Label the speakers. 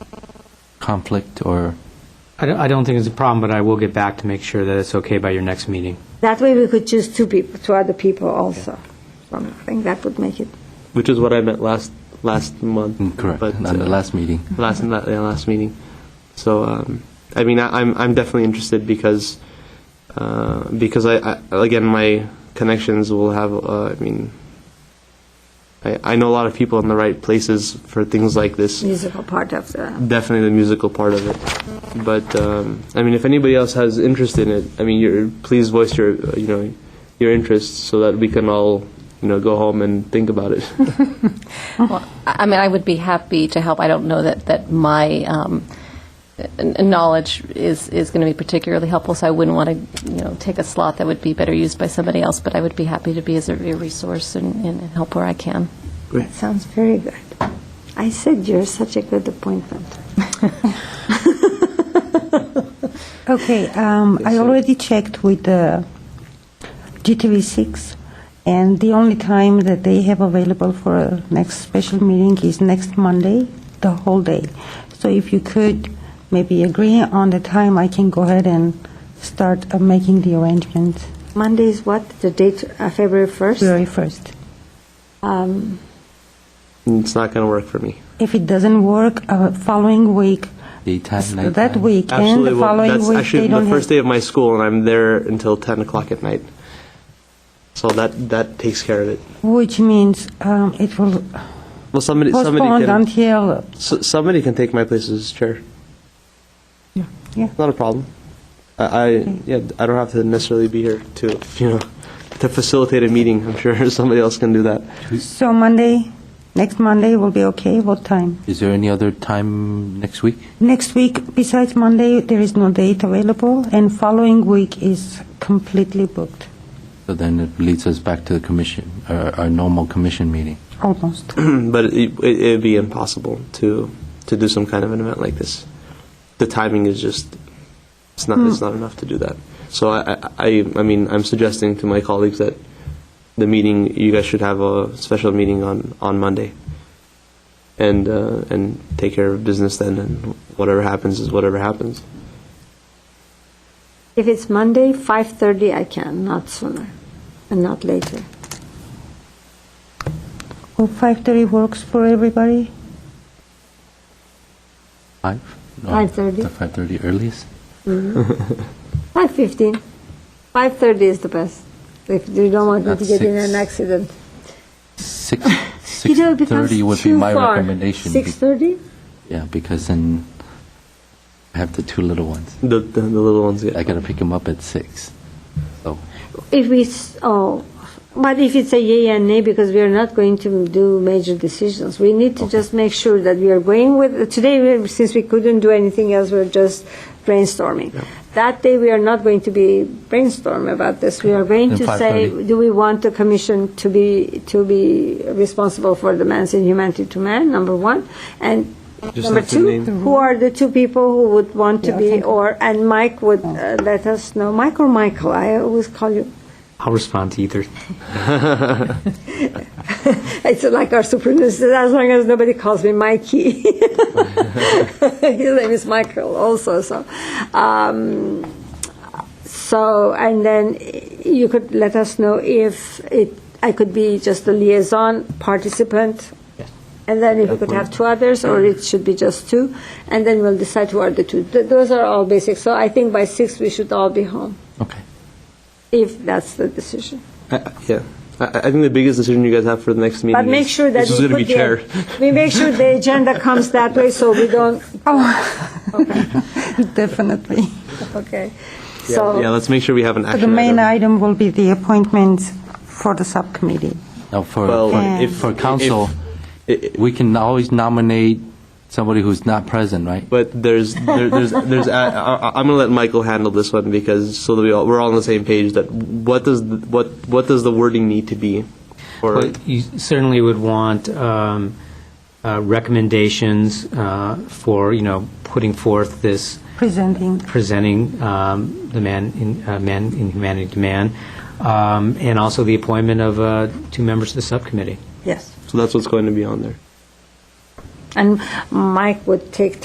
Speaker 1: conflict or?
Speaker 2: I don't, I don't think it's a problem, but I will get back to make sure that it's okay by your next meeting.
Speaker 3: That way we could choose two people, two other people also. So I think that would make it,
Speaker 4: which is what I meant last last month.
Speaker 1: Mm, Correct,
Speaker 4: But,
Speaker 1: on the
Speaker 4: uh,
Speaker 1: last meeting.
Speaker 4: last la- yeah, last meeting. So um, I mean, I, I'm I'm definitely interested because uh, because I, I again my connections will have. Uh, I mean, I I know a lot of people in the right places for things like this.
Speaker 3: musical part of the,
Speaker 4: Definitely the musical part of it. But um, I mean, if anybody else has interest in it, I mean, you're, please voice your uh, you know your interest so that we can all you know go home and think about it.
Speaker 5: Well, I I mean, I would be happy to help. I don't know that, that my um, n- knowledge is, is going to be particularly helpful, so I wouldn't want to, you know, take a slot that would be better used by somebody else, but I would be happy to be as a a resource and, and help where I can.
Speaker 3: that sounds very good. I said you're such a good appointment.
Speaker 6: Okay, um, I already checked with uh, GTV6, and the only time that they have available for a next special meeting is next Monday, the whole day. So if you could maybe agree on the time, I can go ahead and start uh, making the arrangements
Speaker 3: Monday is what, the date, uh, February 1st?
Speaker 6: very first.
Speaker 3: Um,
Speaker 4: it's not going to work for me.
Speaker 6: If it doesn't work, uh, following week,
Speaker 1: Daytime,
Speaker 6: s-
Speaker 1: nighttime?
Speaker 6: that week and
Speaker 4: Absolutely.
Speaker 6: the
Speaker 4: well,
Speaker 6: following
Speaker 4: that's
Speaker 6: week,
Speaker 4: actually
Speaker 6: they
Speaker 4: the
Speaker 6: don't
Speaker 4: first
Speaker 6: have.
Speaker 4: day of my school, and I'm there until 10 o'clock at night. So that, that takes care of it.
Speaker 6: Which means um, it will
Speaker 4: Well, somebody, somebody
Speaker 6: postpone
Speaker 4: can,
Speaker 6: until
Speaker 4: s- somebody can take my place as his chair.
Speaker 6: Yeah.
Speaker 4: Not a problem. I, I yeah, I don't have to necessarily be here to you know to facilitate a meeting. I'm sure somebody else can do that.
Speaker 6: So Monday, next Monday will be okay, what time?
Speaker 1: Is there any other time next week?
Speaker 6: Next week, besides Monday, there is no date available, and following week is completely booked,
Speaker 1: So then it leads us back to the commission, uh, our our normal commission meeting.
Speaker 6: almost.
Speaker 4: but it, it, it'd be impossible to to do some kind of an event like this. The timing is just it's not
Speaker 3: Hmm.
Speaker 4: it's not enough to do that. So I, I- I I mean I'm suggesting to my colleagues that the meeting you guys should have a special meeting on on Monday. And uh, and take care of business then, and whatever happens is whatever happens.
Speaker 3: If it's Monday, 5:30 I can, not sooner and not later.
Speaker 6: Well, 5:30 works for everybody?
Speaker 1: Five? No,
Speaker 3: 5:30.
Speaker 1: the 5:30 earliest?
Speaker 3: 5:15. 5:30 is the best, if you don't want me to
Speaker 1: That's
Speaker 3: get in
Speaker 1: six.
Speaker 3: an accident.
Speaker 1: Six,
Speaker 3: You know, it becomes
Speaker 1: 6:30 would be
Speaker 3: too
Speaker 1: my
Speaker 3: far.
Speaker 1: recommendation. be-
Speaker 3: 6:30?
Speaker 1: Yeah, because then I have the two little ones.
Speaker 4: The the, the little ones get
Speaker 1: I gotta pick them up at six. So,
Speaker 3: If we, s- oh, but if it's a yay and nay, because we are not going to do major decisions, we need to just make sure that we are going with, today, we- since we couldn't do anything else, we're just brainstorming. That day, we are not going to be brainstorm about this. We are going
Speaker 1: Then
Speaker 3: to say,
Speaker 1: 5:30.
Speaker 3: do we want the commission to be, to be responsible for the man's inhumanity to man, number one? And
Speaker 4: Just
Speaker 3: number
Speaker 4: have to
Speaker 3: two,
Speaker 4: name-
Speaker 3: who are the two people who would want to
Speaker 6: Yeah,
Speaker 3: be,
Speaker 6: thank you. Oh.
Speaker 3: or, and Mike would uh, let us know, Mike or Michael, I always call you
Speaker 2: I'll respond to either.
Speaker 3: It's like our superintendent, as long as nobody calls me Mikey. His name is Michael also, so. Um, so, and then you could let us know if it, I could be just a liaison participant. And then if we could have two others, or it should be just two, and then we'll decide who are the two. Th- Those are all basic. So I think by six, we should all be home,
Speaker 1: okay.
Speaker 3: if that's the decision.
Speaker 4: I- yeah. I, I think the biggest decision you guys have for the next meeting.
Speaker 3: But make
Speaker 4: is,
Speaker 3: sure that
Speaker 4: this is
Speaker 3: we
Speaker 4: going to
Speaker 3: put
Speaker 4: be
Speaker 3: the-
Speaker 4: chair.
Speaker 3: We make sure the agenda comes that way, so we don't,
Speaker 6: Definitely.
Speaker 3: okay.
Speaker 4: yeah,
Speaker 3: So,
Speaker 4: let's make sure we have an
Speaker 6: But
Speaker 4: action.
Speaker 6: The main
Speaker 4: item.
Speaker 6: item will be the appointments for the subcommittee.
Speaker 1: Now, for,
Speaker 4: Well,
Speaker 1: for-
Speaker 4: if-
Speaker 1: for
Speaker 4: if-
Speaker 1: council,
Speaker 4: It- it-
Speaker 1: we can always nominate somebody who's not present, right?
Speaker 4: But there's there, there's there's I, I, I'm gonna let Michael handle this one because so that we all, we're all on the same page that what does the, what what does the wording need to be, or
Speaker 2: But you certainly would want um, uh, recommendations uh, for, you know, putting forth this,
Speaker 6: Presenting,
Speaker 2: presenting um, the man in, uh, man in humanity to man, um, and also the appointment of uh, two members of the subcommittee.
Speaker 3: yes.
Speaker 4: so that's what's going to be on there.
Speaker 3: And Mike would take